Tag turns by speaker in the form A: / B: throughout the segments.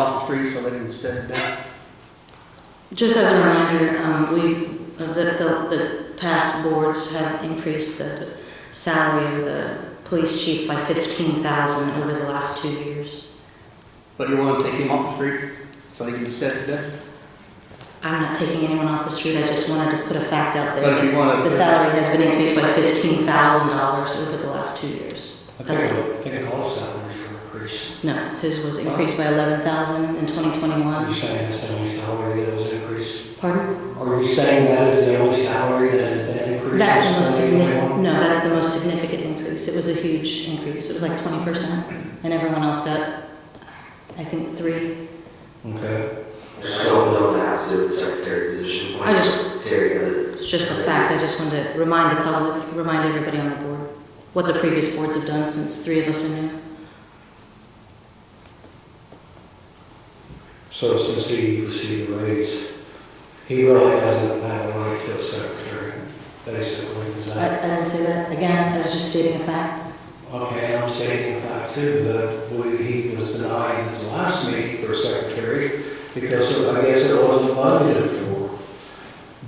A: off the street, so they didn't step it down.
B: Just as a reminder, um, we, uh, the, the, the past boards have increased the salary of the police chief by fifteen thousand over the last two years.
A: But you want to take him off the street, so he can step it down?
B: I'm not taking anyone off the street, I just wanted to put a fact out
A: But if
B: there.
A: you want to,
B: The salary has been increased by fifteen thousand dollars over the last two years.
C: I
B: That's
C: think, I think all salaries were increased.
B: No, his was increased by eleven thousand in twenty
C: Are you
B: twenty-one.
C: saying that's the only salary that was increased?
B: Pardon?
C: Are you saying that is the only salary that has been increased?
B: That's the most
C: since 2021?
B: significant, no, that's the most significant increase. It was a huge increase. It was like twenty percent. And everyone else got, I think, three.
C: Okay.
D: So don't have to do with secretary position.
B: I just-
D: Terry,
B: It's just a fact. I just wanted to remind the public, remind everybody on the board, what the previous boards have done since three of us are new.
C: So since he received a raise, he really hasn't had a right to a secretary, basically, is
B: I,
C: that?
B: I didn't say that. Again, I was just stating a fact.
C: Okay, I'm stating the fact too, that we- he was denied at the last meeting for a secretary because it- I guess it wasn't budgeted for.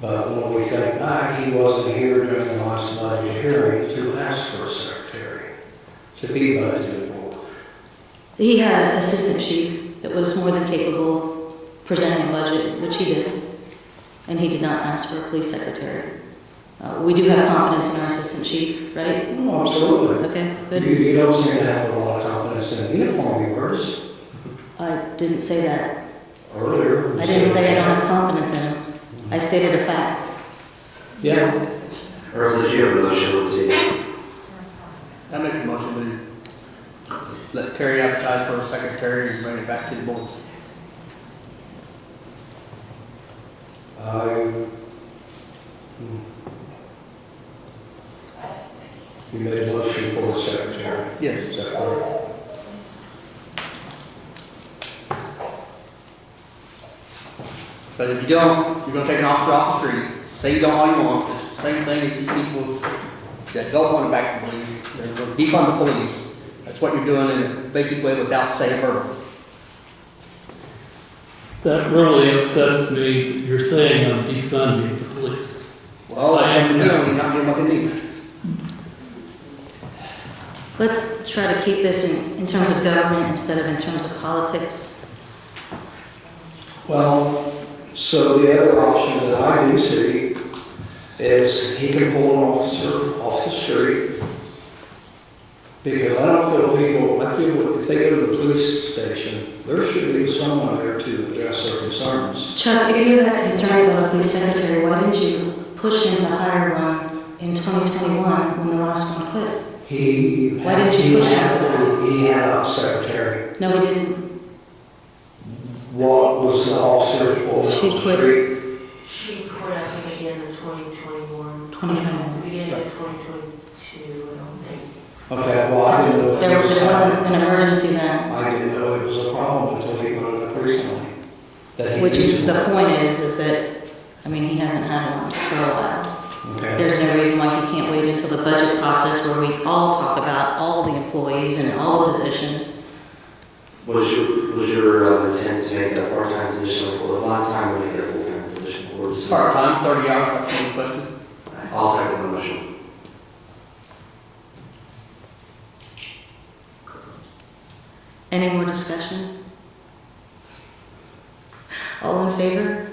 C: But when we think back, he wasn't here during the last budget hearing to ask for a secretary, to be budgeted for.
B: He had an assistant chief that was more than capable of presenting a budget, which he did, and he did not ask for a police secretary. Uh, We do have confidence in our assistant chief, right?
C: Oh, absolutely.
B: Okay,
C: You,
B: good.
C: you don't seem to have a lot of confidence in the uniform he wears
B: I didn't say that.
C: earlier.
B: I didn't say I don't have confidence in him. I stated a fact.
C: Yeah,
D: Earl, did you have a motion on the table?
A: I make a motion to let Terry outside for a secretary and bring it back to the board.
C: I, hmm. you made a motion for a secretary.
A: Yes.
C: Is that correct?
A: But if you don't, you're gonna take an officer off the street, say you don't all you want, it's the same thing as these people that don't want to back the police, they're gonna defund the police. That's what you're doing in a basic way without saying verbally.
E: That really upsets me, that you're saying I'm defunding the police.
A: Well, that's what you're doing, you're not doing what they need.
B: Let's try to keep this in, in terms of government instead of in terms of politics.
C: Well, so the other option that I do see is he can pull an officer off the street. Because I don't feel people, I feel if they go to the police station, there should be someone there to address their concerns.
B: Chuck, if you were that concerned about a police secretary, why didn't you push him to hire one in 2021 when the last one quit?
C: He.
B: Why didn't you
C: he
B: push it?
C: had- He had a secretary.
B: No, we didn't.
C: What was the officer pulled
B: She
C: off the
B: quit.
C: street?
F: She quit, I think she ended 2021.
B: 2021.
F: We ended 2022, I don't think.
C: Okay, well, I didn't know. it
B: There
C: was-
B: there wasn't an emergency then,
C: I didn't know it was a problem until he brought it up recently. that he
B: which is,
C: used
B: the
C: it.
B: point is, is that, I mean, he hasn't had one for a while.
C: Okay,
B: There's no reason why he can't wait until the budget process where we all talk about all the employees and all the positions.
D: Was your, was your uh, intent to make that part-time position, or was last time we made it a full-time position? Or was-
A: Part-time, thirty hours, that's what we requested.
D: I'll second the motion.
B: Any more discussion? All in favor?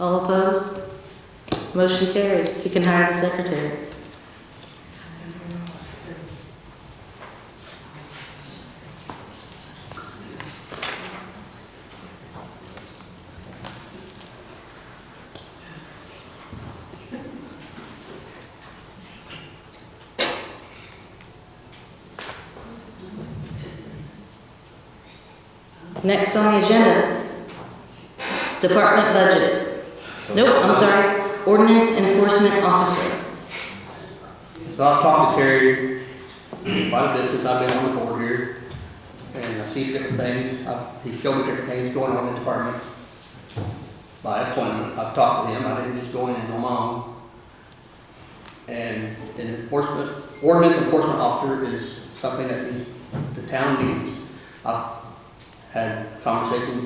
B: All opposed? Motion carried. He can hire the secretary. Next on the agenda, department budget. Nope, I'm sorry, ordinance enforcement officer.
A: So I've talked to Terry quite a bit since I've been on the board here, and I've seen different things, I- he showed me different things going on in the department by appointment, I've talked to him, I didn't just go in and on my own. And an enforcement, ordinance enforcement officer is something that needs, the town needs. I've had conversations